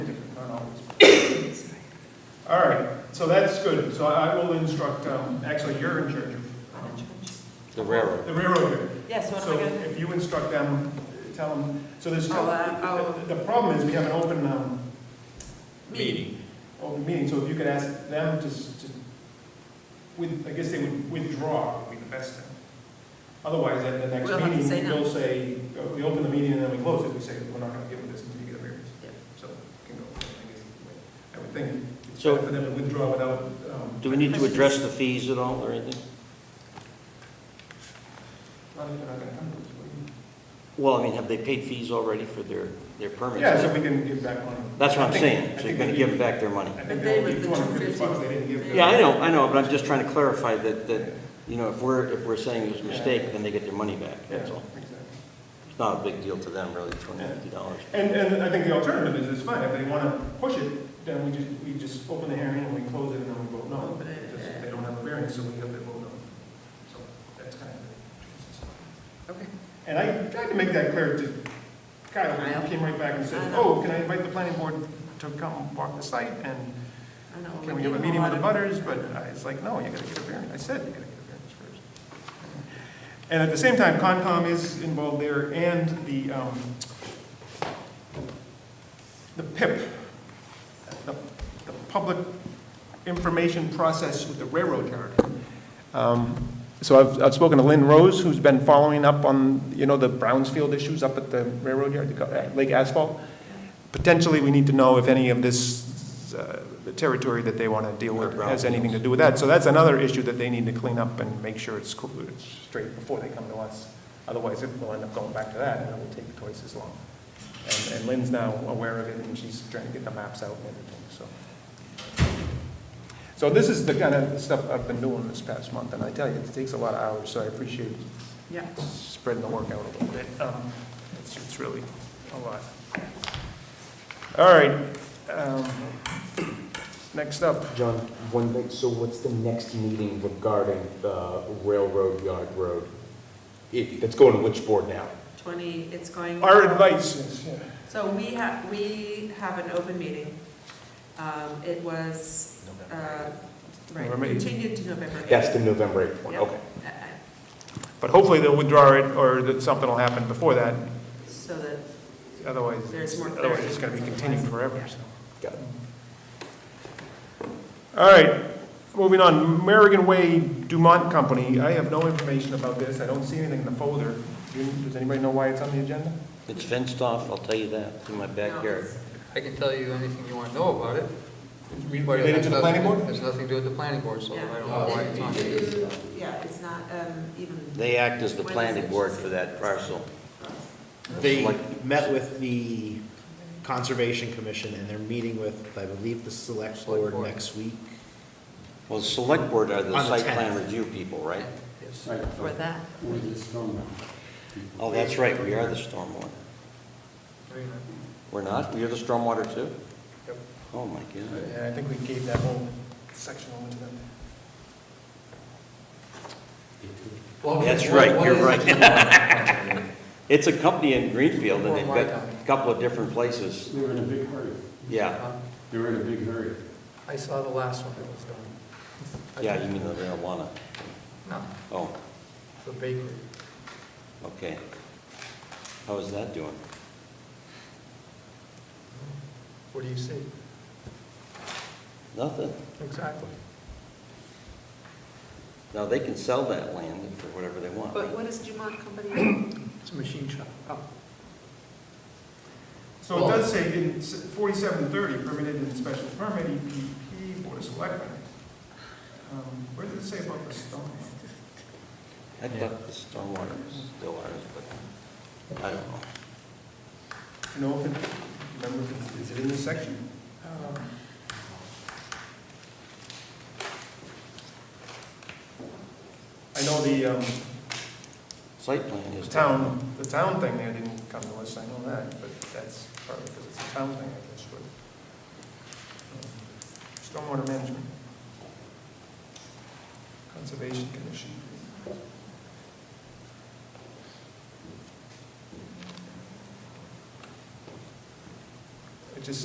All right, so that's good. So I will instruct, um, actually, you're in charge I'm in of charge. The railroad. the railroad. Yes, what am I So gonna do? if you instruct them, tell them, so there's, I'll, uh, I'll- the the problem is we have an open, um, Meeting. open Oh, meeting, so if you could ask them to, s- to, with, I guess they would withdraw would be the best thing. Otherwise, at the next We'll have to say meeting, no. they'll say, uh, we open the meeting and then we close it, we say, we're not gonna give them this until you get a variance. Yeah. So, can go, I guess, I would think, it's So- better for them to withdraw without, um, Do we need to address the fees at all or anything? not if they're not gonna come to us. what do Well, I mean, have they paid fees already for their, you- their permits? Yeah, so we can give back money. That's what I I'm think- saying, I so you're think gonna we give do. them back their money. I But think they they were only the gave two hundred fifty bucks, they didn't give. the- Yeah, I know, I know, but I'm just trying to clarify that, that, you know, if we're, if we're saying it was a mistake, then they get their money back, Yeah, that's all. exactly. It's not a big deal to them, really, two hundred and fifty dollars. And, and I think the alternative is, it's fine, if they wanna push it, then we just, we just open the hearing and we close it and then we vote no. Open it, Because yeah. They don't have a variance, so we have to vote no. So that's kind of the. Okay, And I tried to make that clear to Kyle, Kyle. he came right back and I said, know. oh, can I invite the planning board to come walk the site and I know. can we give have a them meeting with lot the of- butters? But I- it's like, no, you gotta get a variance. I said you gotta get a variance first. And at the same time, Concom is involved there and the, um, the PIP, the, the Public Information Process with the Railroad Yard. Um, So I've, I've spoken to Lynn Rose, who's been following up on, you know, the Brownsfield issues up at the railroad yard, the uh, Lake Asphalt potentially, we need to know if any of this uh, the territory that they want to deal with has anything to do with that. So that's another issue that they need to clean up and make sure it's cl- it's straight before they come to us. Otherwise, it will end up going back to that, and it will take twice as long. And- And Lynn's now aware of it, and she's trying to get the maps out and everything, so. So this is the kind of stuff I've been doing this past month, and I tell you, it takes a lot of hours, so I appreciate Yeah, spreading the work out a little bit. Um, It's, it's really a lot. All right. um, Next up, John, one thing, so what's the next meeting regarding the railroad yard road? It, that's going to which board now? twenty, it's going. our advice is, yeah, So we have, we have an open meeting. Um, it was, uh, right, November eighth. continued to November eighth. That's the November 8th one, Yeah. okay. Uh, uh, but hopefully they'll withdraw it or that something will happen before that. So that Otherwise, There's more otherwise it's clarity. going to be continued forever, so. Got it. All right, moving on, American Way Dumont Company. I have no information about this. I don't see anything in the folder. Do you- Does anybody know why it's on the agenda? It's fenced off, I'll tell you that, It's in my backyard. I can tell you anything you want to know about it. Related to the planning board? Has nothing to do with the planning board, so I don't know why it's on Yeah, here. You- yeah, it's not, um, even. They act as the planning board for that parcel. They Like- met with the Conservation Commission, and they're meeting with, I believe, the Select Board Board. next week. Well, the select board are the On the site 10th. plan review people, right? Yes. Right, For that. Where the storm went. Oh, that's right, we are the stormwater. Very nice. We're not? You're the stormwater too? Yep. Oh, my God. Yeah, Uh, I think we gave that whole section over to them. Well, That's what- right, what you're is it right. you want? It's a company in Greenfield, and they've got Or a couple of different places. They were in a big hurry. Yeah, They were in a big hurry. I saw the last one that was done. yeah, you mean the marijuana. No, Oh, the bakery. okay. How is that doing? What do you see? Nothing. Exactly. Now, they can sell that land for whatever they want, But right? what is Dumont Company? It's a machine shop. Oh. So it does say in forty-seven thirty, permitted in special permit, EPP, Board of Selectmen. Um, Where did it say about the stone? I thought the stormwater was still ours, but I don't know. You know, if it, remember, if it's- is it in this section? Um, I know the um, Site plan the is. town, the town thing there didn't come to us, I know that, but that's partly because it's a town thing, I guess, but. um, Stormwater management. Conservation Commission.